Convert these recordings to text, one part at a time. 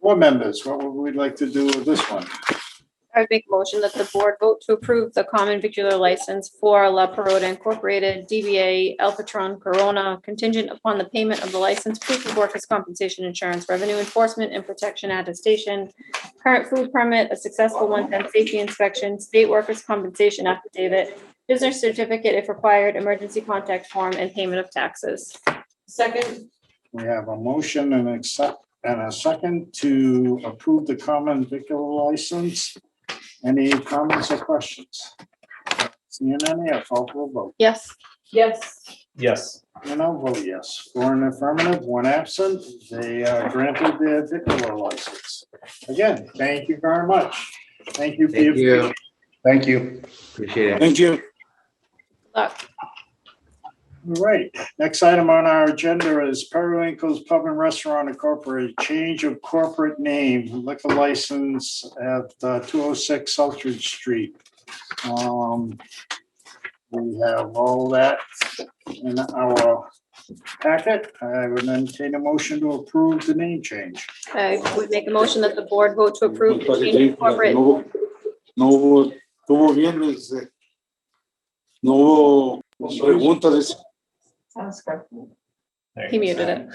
Board members, what would we like to do with this one? I would make a motion that the board vote to approve the common vicular license for La Peroda Incorporated, DBA El Patron Corona, contingent upon the payment of the license, proof of workers' compensation insurance, revenue enforcement and protection attestation, current food permit, a successful one-time safety inspection, state workers' compensation affidavit, business certificate if required, emergency contact form, and payment of taxes. Second, We have a motion and accept, and a second to approve the common vicular license. Any comments or questions? Seeing any, a call for a vote. Yes. yes, Yes. And I'll vote yes. For an affirmative, one absent, they uh, granted their vicular license. Again, thank you very much. Thank you. for your- Thank Thank you. you. Appreciate it. Thank you. Look, All right, next item on our agenda is Periwinkle's Pub and Restaurant Incorporated, change of corporate name, liquor license at two oh six Southridge Street. Um, We have all that in our packet. I would entertain a motion to approve the name change. I would make a motion that the board vote to approve the change of Porque corporate. no hubo- No hubo, estuvo bien, este, no hubo preguntas, es- sounds good. There He you go. muted it.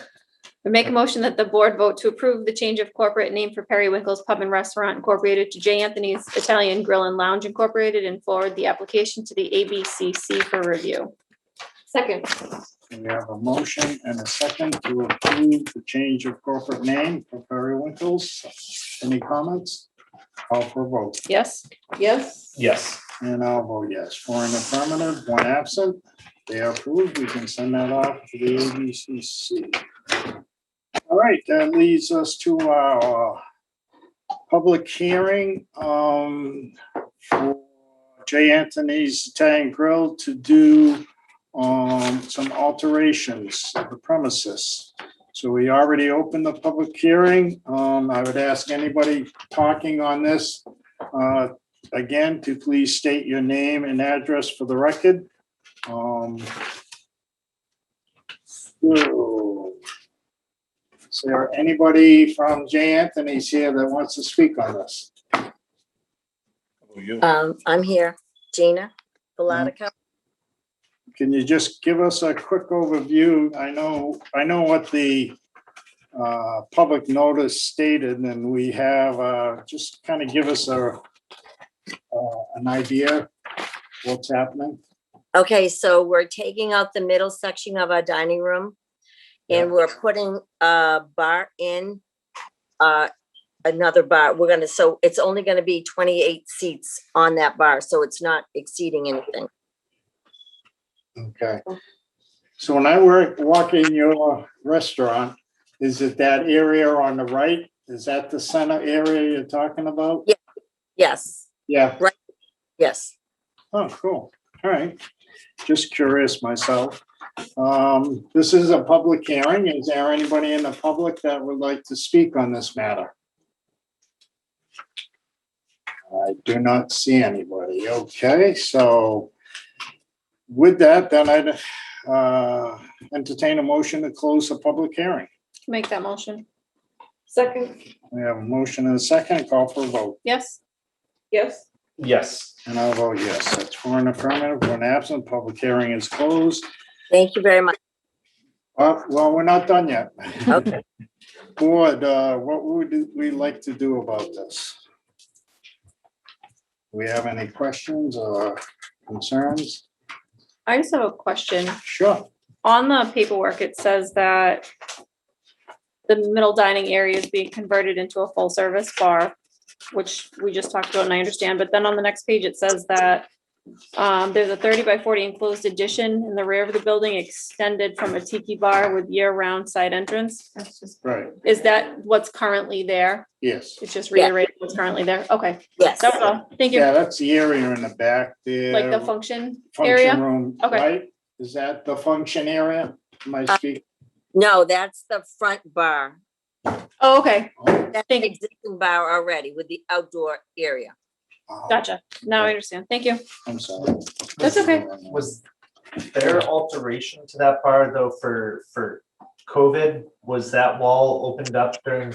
We make a motion that the board vote to approve the change of corporate name for Periwinkle's Pub and Restaurant Incorporated to J. Anthony's Italian Grill and Lounge Incorporated and forward the application to the ABCC for review. Second. We have a motion and a second to approve the change of corporate name for Periwinkle's. Any comments? Call for vote. Yes, Yes, Yes. And I'll vote yes. For an affirmative, one absent. They are approved. We can send that off to the ABCC. All right, that leads us to our public hearing um, for J. Anthony's Italian Grill to do um, some alterations of the premises. So we already opened the public hearing. Um, I would ask anybody talking on this uh, again to please state your name and address for the record. Um, so, Is there anybody from J. Anthony's here that wants to speak on this? Um, I'm here, Gina Belatico. Can you just give us a quick overview? I know, I know what the uh, public notice stated and we have, uh, just kind of give us a uh, an idea what's happening. Okay, so we're taking out the middle section of our dining room and we're putting a bar in, uh, another bar. We're gonna, so it's only gonna be twenty-eight seats on that bar, so it's not exceeding anything. Okay. So when I work, walk in your restaurant, is it that area on the right? Is that the center area you're talking about? Yes, Yeah, yes. oh, cool. All right. Just curious myself. Um, this is a public hearing. Is there anybody in the public that would like to speak on this matter? I do not see anybody. Okay, so with that, then I'd uh, entertain a motion to close the public hearing. make that motion. second, We have a motion and a second. Call for a vote. Yes, yes, Yes. And I'll vote yes. That's for an affirmative, one absent. Public hearing is closed. Thank you very much. Uh, Well, we're not done yet. Okay. Board, uh, what would we like to do about this? Do we have any questions or concerns? I just have a question. Sure. On the paperwork, it says that the middle dining area is being converted into a full-service bar, which we just talked about and I understand, but then on the next page, it says that um, there's a thirty by forty enclosed addition in the rear of the building extended from a tiki bar with year-round side entrance. that's just. Right, Is that what's currently there? yes. It's just Yeah. reiterating what's currently there? Okay, Yes, that's all. Thank you. Yeah, that's the area in the back there. Like the function Function area? room, Okay. right? Is that the function area? Am I Uh, speaking? no, that's the front bar. Oh, okay, That's Thank the you. existing bar already with the outdoor area. Oh, gotcha. Now I understand. Thank you. I'm sorry. That's okay. Was there alteration to that bar though for, for COVID? Was that wall opened up during